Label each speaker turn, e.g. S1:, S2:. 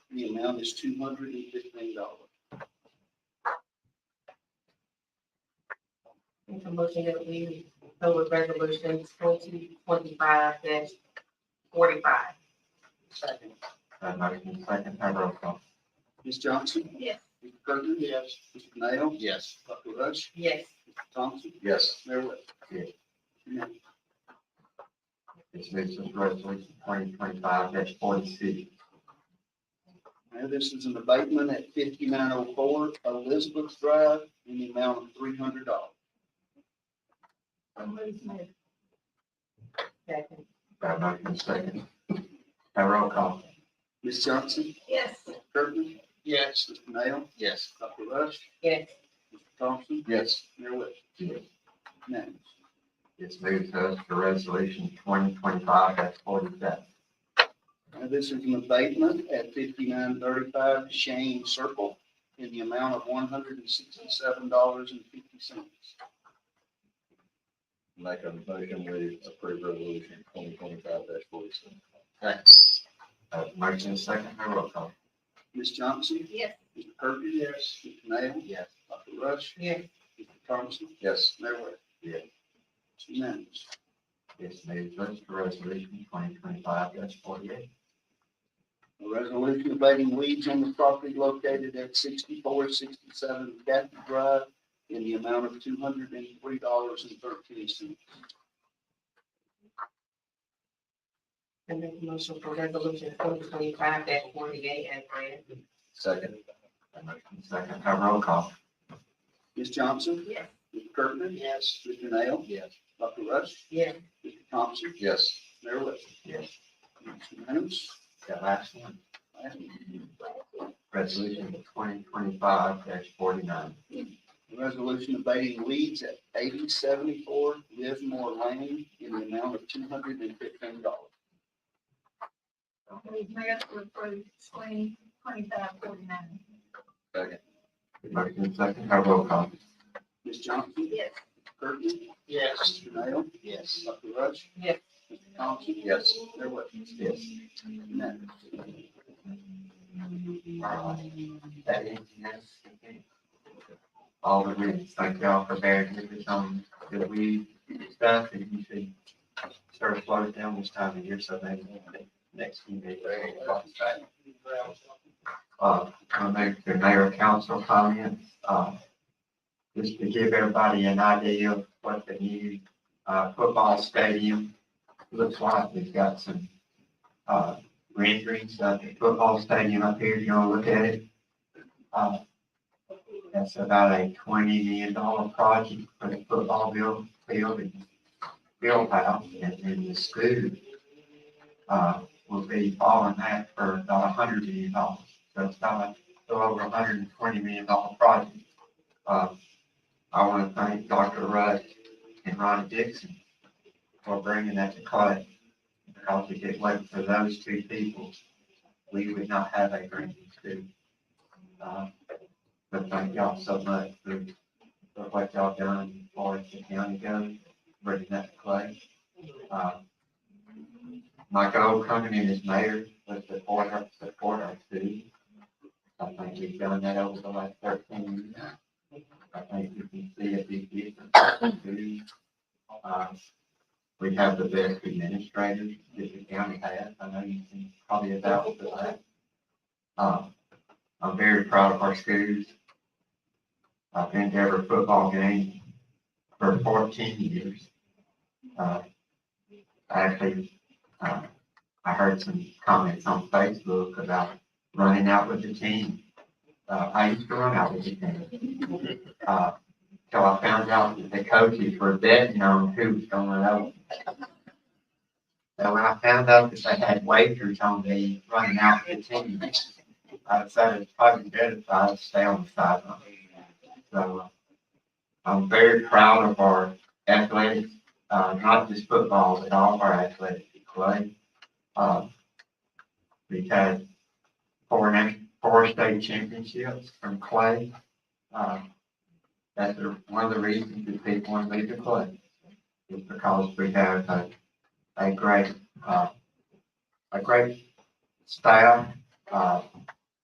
S1: The amount is two hundred and fifteen dollars.
S2: Make a motion that we go with resolution twenty twenty-five forty-five.
S1: Second.
S3: That uh, motion second, have roll call.
S1: Ms. Johnson?
S2: Yes.
S1: Mr. Kirkland? Yes. Mr. Nail?
S4: Yes.
S1: Dr. Rush?
S2: Yes.
S1: Mr. Thompson?
S4: Yes.
S1: Mayor Webb?
S3: Yes.
S1: Unanimous.
S3: This is resolution twenty twenty-five forty-six.
S1: Now, this is an abatement at fifty-nine oh four Elizabeth Drive in the amount of three hundred dollars.
S2: Second.
S3: That motion second, have roll call.
S1: Ms. Johnson?
S2: Yes.
S1: Mr. Kirkland?
S4: Yes.
S1: Mr. Nail?
S4: Yes.
S1: Dr. Rush?
S2: Yes.
S1: Mr. Thompson?
S4: Yes.
S1: Mayor Webb?
S3: Yes.
S1: Unanimous.
S3: This moves us to resolution twenty twenty-five forty-seven.
S1: Now, this is an abatement at fifty-nine thirty-five Shane Circle in the amount of one hundred and sixty-seven dollars and fifty cents.
S4: Make a motion we approve resolution twenty twenty-five dash forty-seven.
S3: That Uh, motion second, have roll call.
S1: Ms. Johnson?
S2: Yes.
S1: Mr. Kirkland? Yes. Mr. Nail?
S4: Yes.
S1: Dr. Rush?
S2: Yes.
S1: Mr. Thompson?
S4: Yes.
S1: Mayor Webb?
S3: Yes.
S1: It's unanimous.
S3: This moves us to resolution twenty twenty-five forty-eight.
S1: A resolution abating weeds on the property located at sixty-four sixty-seven Cathy Drive in the amount of two hundred and three dollars and thirteen cents.
S2: And make a motion for resolution twenty twenty-five forty-eight as read.
S4: Second.
S3: That motion second, have roll call.
S1: Ms. Johnson?
S2: Yes.
S1: Mr. Kirkland? Yes. Mr. Nail?
S4: Yes.
S1: Dr. Rush?
S2: Yes.
S1: Mr. Thompson?
S4: Yes.
S1: Mayor Webb?
S3: Yes.
S1: It's unanimous.
S3: That last one,
S1: Item.
S3: resolution twenty twenty-five forty-nine.
S1: A Resolution abating weeds at eighty seventy-four Livermore Lane in the amount of two hundred and fifteen dollars.
S5: We move to approve twenty twenty-five forty-nine.
S4: Second.
S3: Motion second, have roll call.
S1: Ms. Johnson?
S5: Yes.
S1: Mr. Kirkland?
S4: Yes.
S1: Mr. Nail?
S4: Yes.
S1: Dr. Rush?
S2: Yes.
S1: Mr. Thompson?
S4: Yes.
S1: Mayor Webb?
S3: Yes.
S1: Unanimous.
S3: Uh, That is, yes. All the reasons, thank y'all for bearing with us on that we discussed, and you should start to slow it down this time of year, so maybe next few days. Uh, I'll make the mayor and council comments, uh, just to give everybody an idea of what the new, uh, football stadium looks like. We've got some, uh, renderings of uh, the football stadium up here, if you want to look at it. Uh, That's about a twenty million dollar project for the football build, field and field house, and then the school, uh, will be following that for about a hundred million dollars. So it's about a little over a hundred and twenty million dollar project. Uh, I want to thank Dr. Rudd and Ronnie Dixon for bringing that to college. Because if it wasn't for those two people, we would not have a Grandview school. Uh, But thank y'all so much for, for what y'all done for us the county goes, bringing that to college. Uh, My goal coming in as mayor was to support our, support our city. I think we've done that over the last thirteen years. I think we can see a big difference. We, uh, We have the best administrators that the county has. I know you can probably vouch for that. Uh, I'm very proud of our schools. I've been to every football game for fourteen years. Uh, Actually, uh, I heard some comments on Facebook about running out with the team. Uh, I used to run out with the team. Uh, till I found out that the coaches were betting on who was gonna run out. So when I found out that they had wagers on the running out with the team, I decided it's probably better if I stay on the sideline. So uh, I'm very proud of our athletics, uh, not just football, but all of our athletic play. Uh, we've had four, na- four state championships from Clay. Uh, That's the- one of the reasons that people want to leave the Clay, is because we have a, a great, uh, a great staff, uh,